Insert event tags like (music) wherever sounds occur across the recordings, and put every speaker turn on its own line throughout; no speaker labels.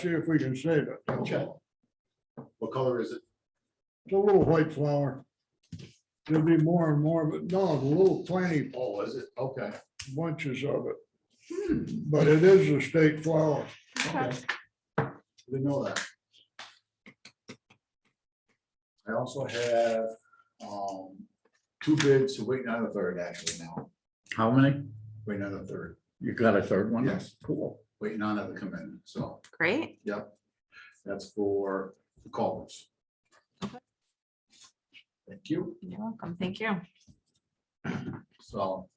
see if we can save it.
Check. What color is it?
It's a little white flower. There'll be more and more, but no, the little tiny
Oh, is it? Hmm. Okay.
bunches of it. But it is a state flower.
Okay. Didn't know that. I also have, um, two bids, waiting on a third actually now,
How many?
waiting on a third,
You got a third one?
Yes.
Cool.
waiting on it to come in, so,
Great.
yep. That's for the callers. Thank you,
You're welcome. Thank you.
so.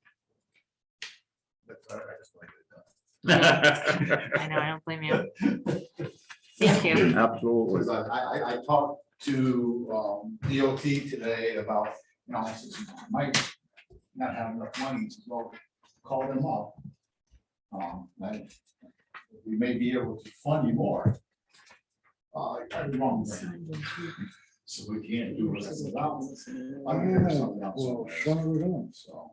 that's all right, I just wanted to do that.
I know, I don't blame you. Thank
Thank
you.
Absolutely.
Because I, I, I talked to, um, DOT today about, you know, I said, Mike, not having enough money to go call them up. Um, like, we may be able to fund you more. Uh, I'm wrong. So we can't do it without, I mean, there's something else.
Well, son of a gun.
so.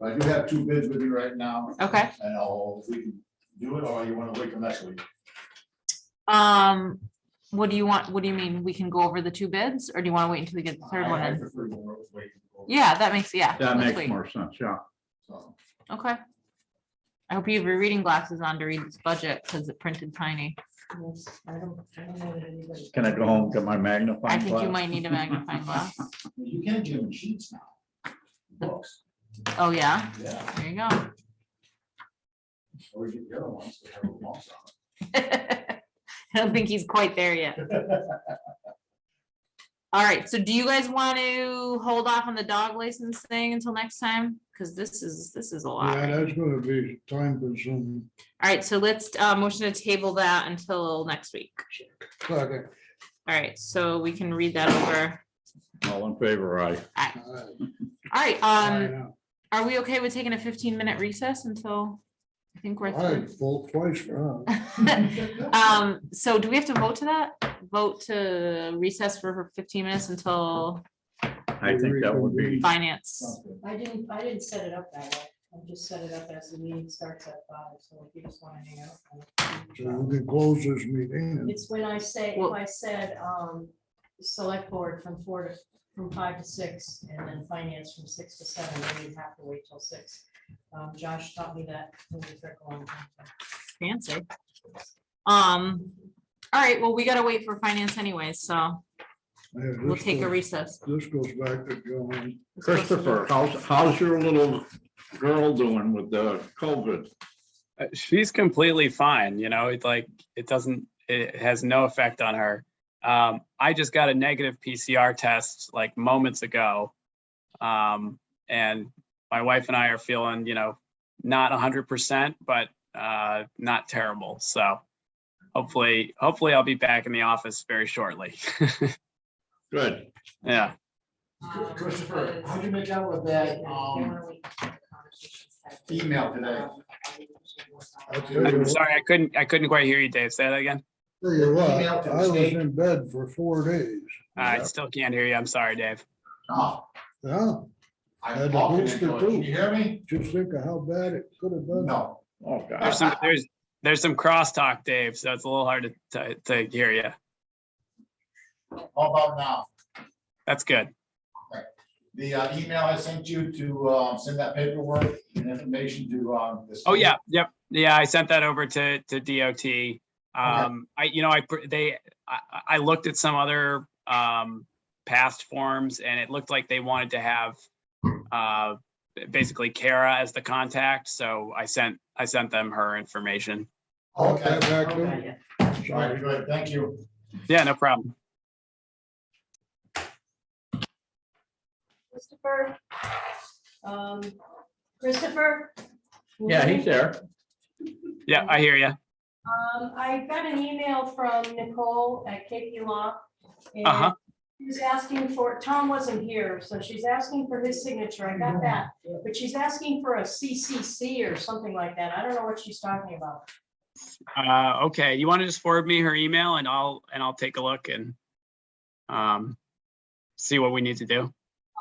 But I do have two bids with you right now.
Okay.
And I'll, we can do it, or you wanna wait till next week?
Um, what do you want? What do you mean? We can go over the two bids or do you want to wait until we get the third
I-
one
I
in?
prefer to wait. till-
Yeah, that makes, yeah.
That
let's
makes
wait.
more sense, yeah.
So,
Okay. I hope you have your reading glasses on to read this budget because it printed tiny.
Can I go home, get my
I
magnifying glass?
think you might need a magnifying glass.
You can give them sheets now. Books,
Oh, yeah,
yeah,
there you go.
or you get the other ones that have a box
(laughs) I don't think he's quite there (laughs) yet.
on it.
All right, so do you guys want to hold off on the dog license thing until next time? Because this is, this is a lot.
Yeah,
right?
that's gonna be time consuming.
All right, so let's, uh, motion to table that until next week.
Second.
All right, so we can read that over.
All in favor, aye.
All right,
I
um,
know.
are we okay with taking a fifteen minute recess until? I think we're
I
through.
vote twice for
(laughs)
that.
Um, so do we have to vote to that? Vote to recess for fifteen minutes until
I think that would be,
finance?
I didn't, I didn't set it up that way. I just set it up as the meeting starts at five, so if you just want to hang
So
out.
we can close this meeting. and-
It's when I say, if
Well-
I said, um, select board from four to, from five to six, and then finance from six to seven, then you'd have to wait till six. Um, Josh taught me that. when we took on.
Fancy. Um, all right, well, we gotta wait for finance anyway, so
Yeah,
we'll
this
take a
goes-
recess.
This goes back to John.
Let's go to the-
Christopher, how's, how's your little girl doing with the COVID?
Uh, she's completely fine you know it's like it doesn't it has no effect on her um, i just got a negative pcr test like moments ago um, and my wife and i are feeling you know not 100% but uh, not terrible so hopefully hopefully i'll be back in the office very shortly (laughs)
Good.
yeah
Um,
Christopher,
because-
how'd you make out with that,
Yeah, they
um,
wanna wait for the conversations to happen.
email today?
Um, I didn't actually know what's
That's
on
it.
that.
i'm sorry i couldn't i couldn't quite hear you dave say that again
Tell you what,
Email to the
I was
state.
in bed for four days.
i still can't hear you i'm sorry dave
Oh,
Yeah,
I'm
Had a
talking,
booster
can you
too.
hear me?
just think of how bad it could have been.
No,
Oh, God.
There's some, there's, there's some crosstalk, Dave, so it's a little hard to, to, to hear you.
how about now?
That's good.
The uh, email I sent you to, um, send that paperwork and information to, um. the
Oh,
state.
yeah, yep, yeah, I sent that over to, to DOT. Um, I, you know, I, pr- they, I, I- I looked at some other, um, past forms and it looked like they wanted to have, uh, basically Kara as the contact, so I sent, I sent them her information.
Okay,
Back
Oh,
to-
yeah.
all right, good, thank you.
Yeah, no problem.
Christopher? Um, Christopher?
Yeah, he's there.
Yeah, I hear you.
Um, I got an email from Nicole at KP Law.
Uh-huh.
and She was asking for, Tom wasn't here, so she's asking for his signature. I got that. But she's asking for a CCC or something like that. I don't know what she's talking about.
Uh, okay, you want to just forward me her email and I'll, and I'll take a look and um, see what we need to do.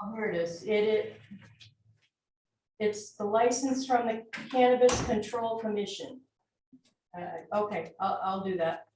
Oh, here it is. It, it, it's the license from the Cannabis Control Commission. Uh, okay, I'll, I'll do that.